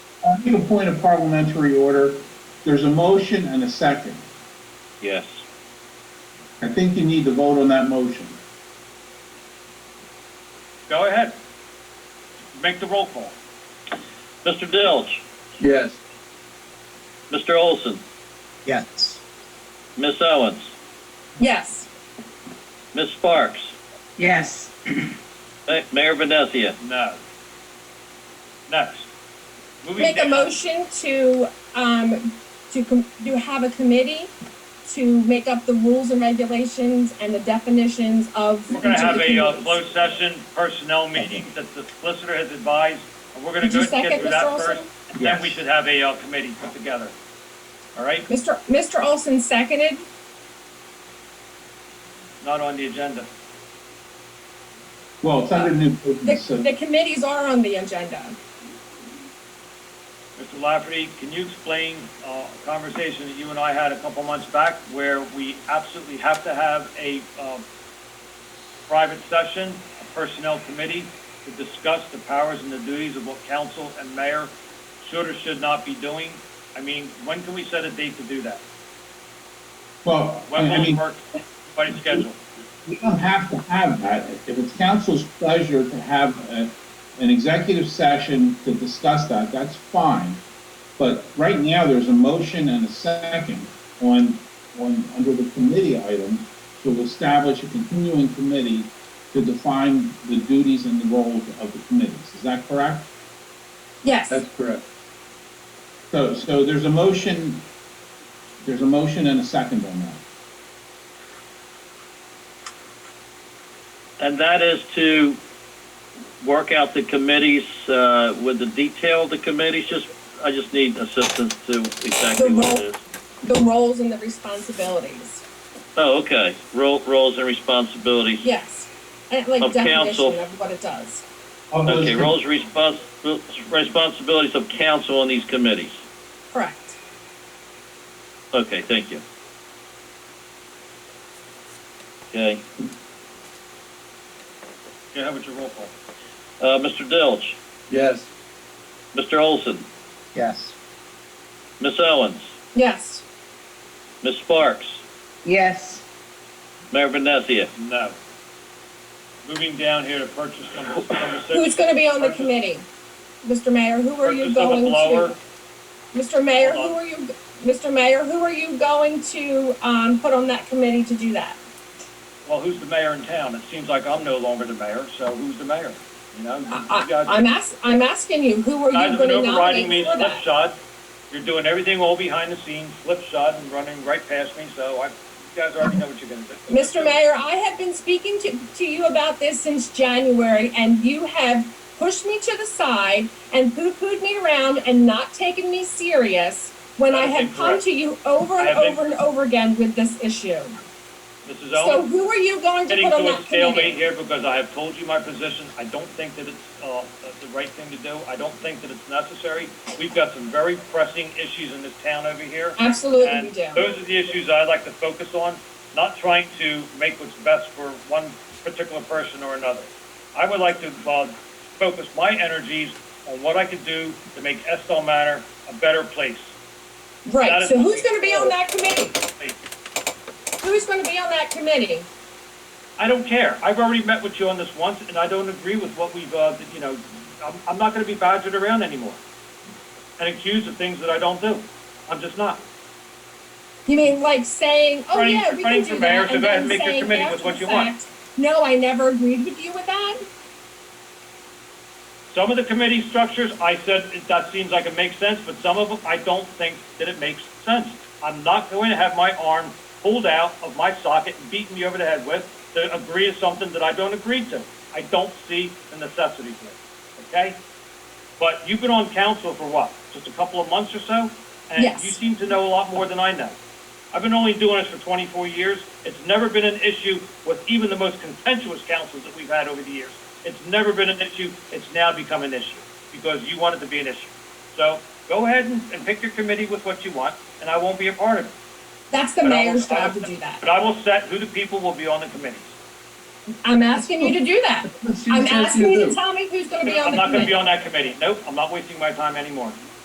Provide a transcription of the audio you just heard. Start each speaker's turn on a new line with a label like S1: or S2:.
S1: I need a point of parliamentary order. There's a motion and a second.
S2: Yes.
S1: I think you need to vote on that motion.
S2: Go ahead. Make the roll call. Mr. Dilge?
S3: Yes.
S2: Mr. Olson?
S4: Yes.
S2: Miss Owens?
S5: Yes.
S2: Miss Sparks?
S4: Yes.
S2: Ma- Mayor Vinesia? No. Next.
S5: Make a motion to, um, to, com- to have a committee to make up the rules and regulations and the definitions of.
S6: We're gonna
S5: each of
S6: have
S5: the
S6: a uh,
S5: committees.
S6: closed session personnel meeting that the solicitor has advised, and we're gonna
S5: Did
S6: go
S5: you
S6: get
S5: second,
S6: through
S5: Mr.
S6: that
S5: Olson?
S6: first. And then we should have a uh, committee put together. All right,
S5: Mr. Mr. Olson seconded.
S6: not on the agenda.
S1: Well, it's under new
S5: The,
S1: business, so
S5: the committees are on the agenda.
S6: Mr. Lafferty, can you explain uh, a conversation that you and I had a couple months back where we absolutely have to have a uh, private session, a personnel committee, to discuss the powers and the duties of what council and mayor should or should not be doing? I mean, when can we set a date to do that?
S1: well, I
S6: When
S1: I
S6: will it
S1: mean,
S6: work? By schedule?
S1: we don't have to have that. If it's council's pleasure to have a, an executive session to discuss that, that's fine. But right now, there's a motion and a second on, on, under the committee item to establish a continuing committee to define the duties and the roles of the committees. Is that correct?
S5: Yes.
S3: That's correct.
S1: So, so there's a motion, there's a motion and a second on that.
S2: And that is to work out the committees, uh, with the detail of the committees, just, I just need assistance to exactly what it is.
S5: The roles and the responsibilities.
S2: Oh, okay, role, roles and responsibilities.
S5: Yes. And like
S2: Of council.
S5: definition of what it does.
S1: All those
S2: Okay,
S1: in-
S2: roles, respons- responsibilities of council on these committees.
S5: Correct.
S2: Okay, thank you. Okay,
S6: Yeah, how about your roll call?
S2: uh, Mr. Dilge,
S3: Yes.
S2: Mr. Olson,
S4: Yes.
S2: Miss Owens,
S5: Yes.
S2: Miss Sparks,
S4: Yes.
S2: Mayor Vinesia.
S6: No. Moving down here to purchase number number six.
S5: Who's gonna be on the
S6: Purchase-
S5: committee? Mr. Mayor, who are you
S6: purchase of a
S5: going
S6: blower.
S5: to? Mr. Mayor,
S6: Hold
S5: who
S6: on.
S5: are you, Mr. Mayor, who are you going to, um, put on that committee to do that?
S6: Well, who's the mayor in town? It seems like I'm no longer the mayor, so who's the mayor? You know, you you
S5: I,
S6: guys,
S5: I, I'm ask, I'm asking you, who are
S6: guys
S5: you
S6: have been
S5: gonna
S6: overriding me
S5: nominate for that?
S6: slipshod. You're doing everything all behind the scenes, slipshod and running right past me, so I, you guys already know what you're gonna do.
S5: Mr. Mayor, I have been speaking to, to you about this since January, and you have pushed me to the side and poo-pooed me around and not taken me serious when
S6: That
S5: I
S6: is
S5: have come
S6: incorrect.
S5: to you over
S6: I
S5: and
S6: have been-
S5: over and over again with this issue.
S6: Mrs.
S5: So
S6: Owen?
S5: who are you going to
S6: getting
S5: put on
S6: to a
S5: that
S6: stalemate
S5: committee?
S6: here because I have told you my position. I don't think that it's uh, the right thing to do. I don't think that it's necessary. We've got some very pressing issues in this town over here.
S5: Absolutely
S6: and
S5: we do.
S6: those are the issues I'd like to focus on, not trying to make what's best for one particular person or another. I would like to uh, focus my energies on what I could do to make Estill Manor a better place. that
S5: Right,
S6: is
S5: so
S6: what
S5: who's
S6: we-
S5: gonna be on that committee? Who's gonna be on that committee?
S6: I don't care. I've already met with you on this once, and I don't agree with what we've, uh, you know, I'm, I'm not gonna be badgered around anymore and accused of things that I don't do. I'm just not.
S5: You mean like saying, oh
S6: Running-
S5: yeah, we can
S6: running
S5: do
S6: for mayor,
S5: that,
S6: so
S5: and
S6: go ahead
S5: then
S6: and make your
S5: saying
S6: committee with
S5: after
S6: what
S5: the
S6: you want.
S5: fact, no, I never agreed with you with that?
S6: Some of the committee structures, I said, that seems like it makes sense, but some of them, I don't think that it makes sense. I'm not going to have my arm pulled out of my socket and beaten me over the head with to agree to something that I don't agree to. I don't see the necessity for it, okay? But you've been on council for what, just a couple of months or so? And
S5: Yes.
S6: you seem to know a lot more than I know. I've been only doing this for 24 years. It's never been an issue with even the most contentious councils that we've had over the years. It's never been an issue. It's now become an issue because you want it to be an issue. So go ahead and, and pick your committee with what you want, and I won't be a part of it.
S5: That's the
S6: But I will-
S5: mayor's
S6: I
S5: job
S6: will-
S5: to do that.
S6: But I will set who the people will be on the committees.
S5: I'm asking you to do that.
S3: She
S5: I'm
S3: says
S5: asking
S3: you
S5: you to
S3: do.
S5: tell me who's gonna be on
S6: I'm
S5: the
S6: not going to be
S5: committee.
S6: on that committee. Nope, I'm not wasting my time anymore.